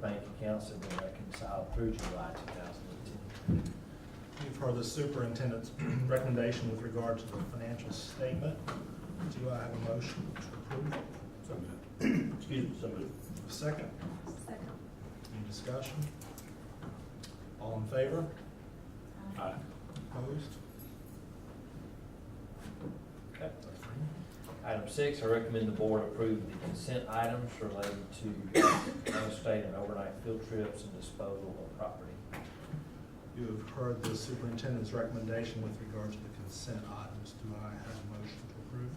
bank accounts that were reconciled through July two thousand and ten. You've heard the superintendent's recommendation with regard to the financial statement. Do I have a motion to approve? So moved. Excuse me, so moved. Second, Second. any discussion? All in favor? Aye. Opposed? Okay. So three. Item six, I recommend the board approve the consent items related to out-of-state and overnight field trips and disposal of property. You have heard the superintendent's recommendation with regard to the consent items. Do I have a motion to approve?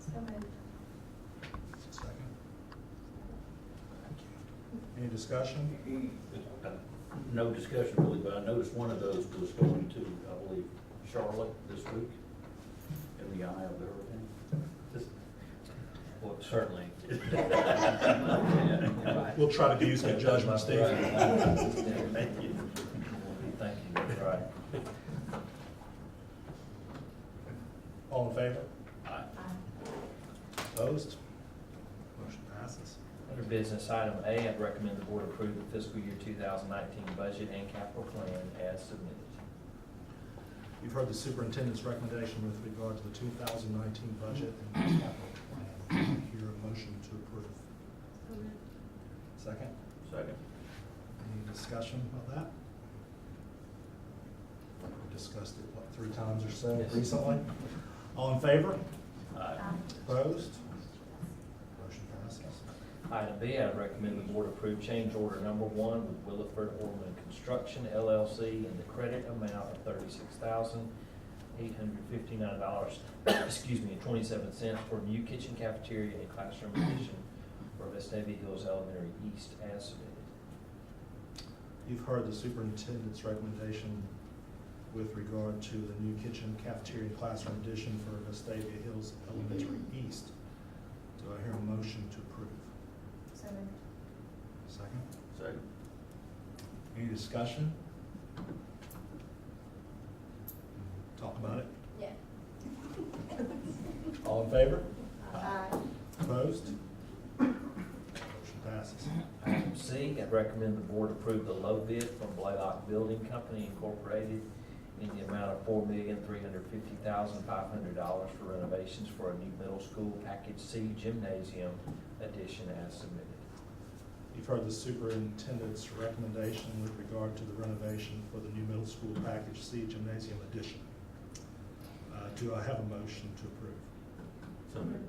So moved. Second. Thank you. Any discussion? No discussion really, but I noticed one of those was going to, I believe, Charlotte this week in the eye of the hurricane. Just- Well, certainly. We'll try to use good judgment, Steve. Thank you. Thank you, that's right. All in favor? Aye. Opposed? Motion passes. Under business item A, I'd recommend the board approve the fiscal year two thousand nineteen budget and capital plan as submitted. You've heard the superintendent's recommendation with regard to the 2019 budget and capital plan. Hear a motion to approve. So moved. Second, Second. any discussion about that? We Discussed it, what, three times or so Yes. recently? All in favor? Aye. Opposed? Motion passes. Item B, I'd recommend the board approve change order number one with Williford Orland Construction LLC in the credit amount of thirty-six thousand eight hundred fifty-nine dollars, excuse me, and twenty-seven cents for new kitchen cafeteria and classroom addition for Vestavia Hills Elementary East as submitted. You've heard the superintendent's recommendation with regard to the new kitchen cafeteria classroom addition for Vestavia Hills Elementary East. Do I hear a motion to approve? So moved. Second? Second. Any discussion? Talk about it. Yeah. All in favor? Aye. Opposed? Motion passes. Item C, I'd recommend the board approve the low bid from Blaylock Building Company Incorporated in the amount of four million, three hundred fifty thousand, five hundred dollars for renovations for a new middle school package C gymnasium addition as submitted. You've heard the superintendent's recommendation with regard to the renovation for the new middle school package C gymnasium addition. Uh, Do I have a motion to approve? So moved.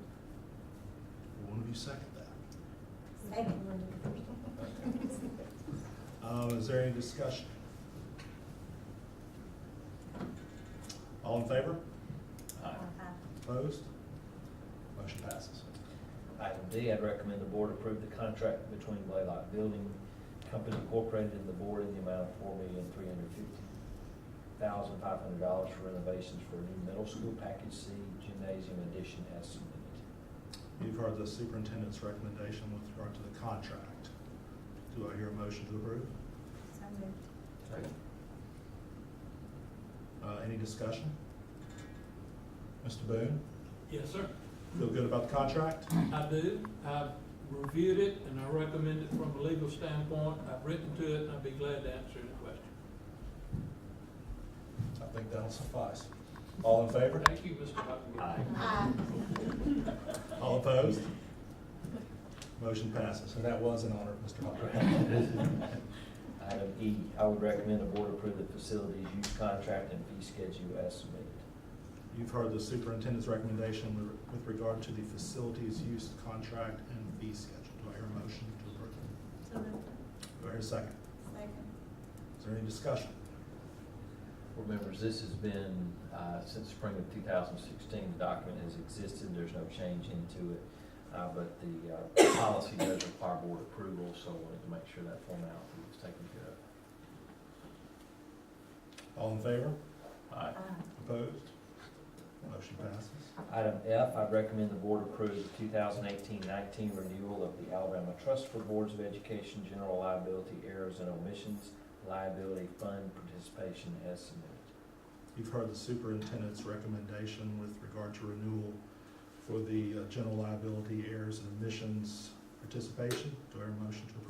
Will one of you second that? Second. Uh, Is there any discussion? All in favor? Aye. Opposed? Motion passes. Item D, I'd recommend the board approve the contract between Blaylock Building Company Incorporated and the board in the amount of four million, three hundred fifty thousand, five hundred dollars for renovations for a new middle school package C gymnasium addition as submitted. You've heard the superintendent's recommendation with regard to the contract. Do I hear a motion to approve? So moved. Second. Uh, Any discussion? Mr. Boone, Yes, sir. feel good about the contract? I do. I've reviewed it and I recommend it from a legal standpoint. I've written to it and I'd be glad to answer any question. I think that'll suffice. All in favor? Thank you, Mr. Huckabee. Aye. Aye. All opposed? Motion passes, and that was an honor, Mr. Hopper. Item E, I would recommend the board approve the facilities use contract and fee schedule as submitted. You've heard the superintendent's recommendation with- with regard to the facilities use contract and fee schedule. Do I hear a motion to approve? So moved. Do I hear a second? Second. Is there any discussion? Board members, this has been, uh, since spring of two thousand sixteen, the document has existed, there's no change into it. Uh, but the, uh, policy does require board approval, so I wanted to make sure that formality was taken care of. All in favor? Aye. Aye. Opposed? Motion passes. Item F, I'd recommend the board approve the 2018-19 renewal of the Alabama Trust for Boards of Education General Liability Errors and Omissions Liability Fund Participation as submitted. You've heard the superintendent's recommendation with regard to renewal for the uh, general liability errors and omissions participation. Do I hear a motion to approve?